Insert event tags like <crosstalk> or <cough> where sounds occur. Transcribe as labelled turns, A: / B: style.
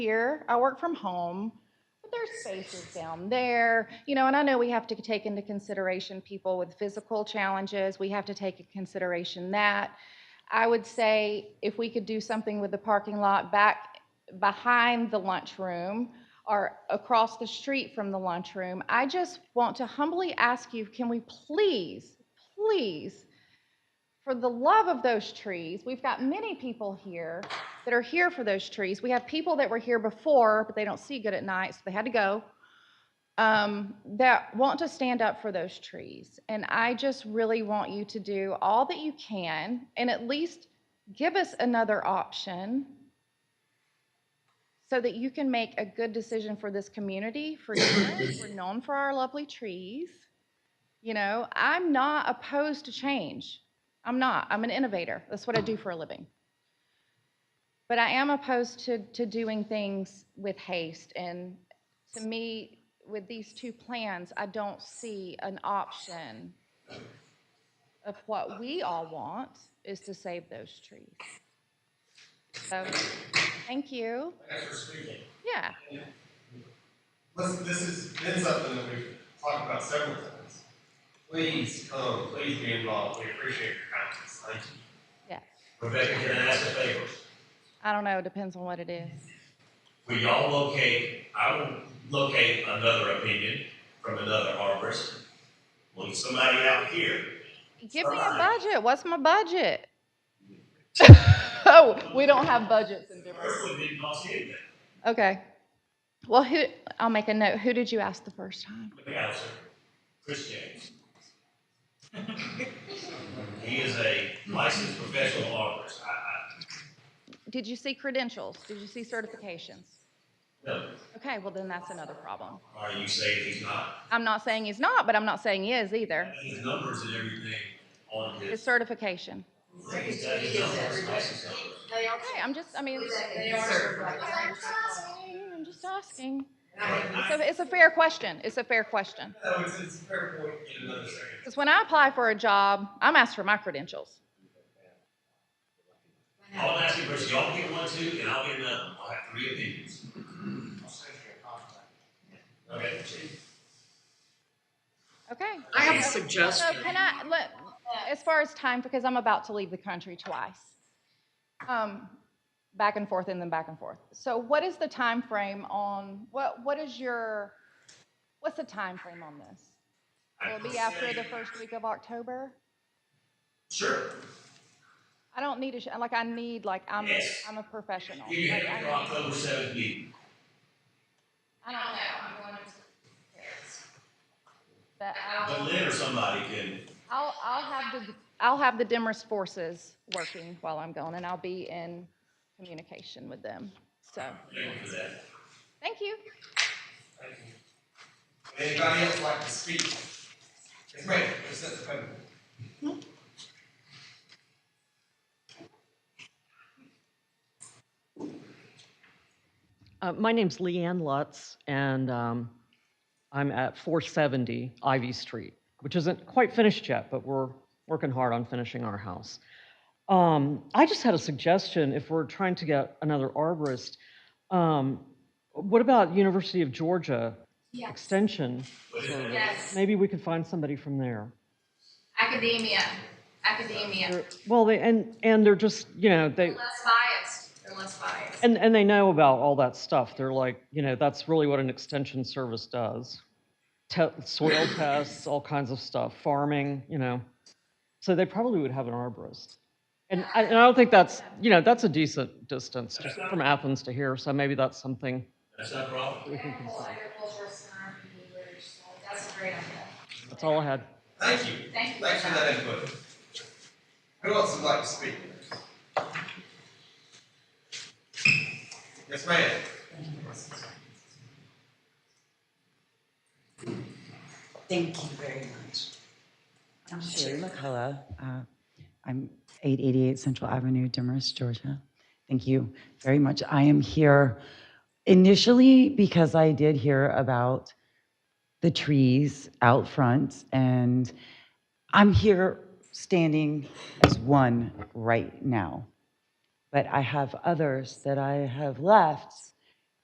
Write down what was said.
A: here, I work from home, but there's spaces down there, you know, and I know we have to take into consideration people with physical challenges, we have to take into consideration that. I would say if we could do something with the parking lot back behind the lunchroom or across the street from the lunchroom, I just want to humbly ask you, can we please, please, for the love of those trees, we've got many people here that are here for those trees. We have people that were here before, but they don't see good at night, so they had to go, um, that want to stand up for those trees. And I just really want you to do all that you can and at least give us another option so that you can make a good decision for this community, for you. <coughs> We're known for our lovely trees. You know, I'm not opposed to change. I'm not. I'm an innovator. That's what I do for a living. But I am opposed to, to doing things with haste. And to me, with these two plans, I don't see an option of what we all want is to save those trees. So, thank you.
B: Thanks for speaking.
A: Yeah.
B: Listen, this has been something that we've talked about several times. Please come, please be involved. We appreciate your comments. Thank you.
A: Yeah.
C: Rebecca, can I ask a favor?
A: I don't know. It depends on what it is.
C: Will y'all locate, I will locate another opinion from another arborist. Look somebody out here.
A: Give me a
C: Fine.
A: budget. What's my budget? <laughs> oh, we don't have budgets in Denver.
C: First one didn't cost anything,
A: Okay. Well, who? I'll make a note. Who did you ask the first time?
C: the council, Chris James. <laughs> He is a licensed professional arborist. I, I,
A: Did you see credentials? Did you see certifications?
C: no,
A: Okay. Well, then that's another problem.
C: are you saying he's not?
A: I'm not saying he's not, but I'm not saying he is either.
C: His numbers and everything on
A: His
C: his,
A: certification.
C: he's got his numbers, license numbers.
D: They are,
A: Okay. I'm just. I mean,
D: they are certified.
A: I'm just asking.
D: And I think
A: So it's a fair question. It's a fair question.
B: No, Oh, it's, it's a fair point in another second.
A: Because when I apply for a job, I'm asked for my credentials.
C: I'll ask you first, y'all get one too, and I'll get another. I'll have three opinions. Okay,
A: Okay.
E: I have a
A: So
E: suggestion.
A: can I, let, as far as time, because I'm about to leave the country twice. Um, back and forth and then back and forth. So what is the time frame on, what, what is your, what's the time frame on this?
C: I
A: Will it be
C: can
A: after
C: say-
A: the first week of October?
C: Sure.
A: I don't need a, sh- like, I need, like, I'm, a-
C: Yes.
A: I'm a professional.
C: You can
A: Like,
C: have
A: I
C: your
A: need-
C: October seventh meeting.
A: I don't know, I'm going to. But I'll-
C: But Lynn or somebody can,
A: I'll, I'll have the, I'll have the Demorest forces working while I'm gone, and I'll be in communication with them. So,
C: thank you for that.
A: thank you.
B: Thank you. Would Anybody else like to speak? Yes, ma'am, just at the podium.
F: Uh, My name's Leanne Lutz, and um, I'm at 470 Ivy Street, which isn't quite finished yet, but we're working hard on finishing our house. Um, I just had a suggestion, if we're trying to get another arborist, um, what about University of Georgia Extension?
C: But if-
D: Yes,
F: Maybe we could find somebody from there.
D: academia, academia,
F: They're- Well, they, and, and they're just, you know, they,
D: less biased, they're less biased.
F: and, and they know about all that stuff. They're like, you know, that's really what an extension service does. Te- soil tests, all kinds of stuff, farming, you know. So they probably would have an arborist. And I, and I don't think that's, you know, that's a decent distance just from Athens to here. So maybe that's something
C: That's not a problem.
F: we can
D: Whole
F: consider.
D: agricultural center, we were just like, that's a great idea.
F: That's all I had.
B: Thank you.
D: Thank you.
B: Thanks for that input. Who else would like to speak? Yes, ma'am.
G: Thank you very much. I'm Sherry McCullough. Uh, I'm 888 Central Avenue, Demorest, Georgia. Thank you very much. I am here initially because I did hear about the trees out front, and I'm here standing as one right now. But I have others that I have left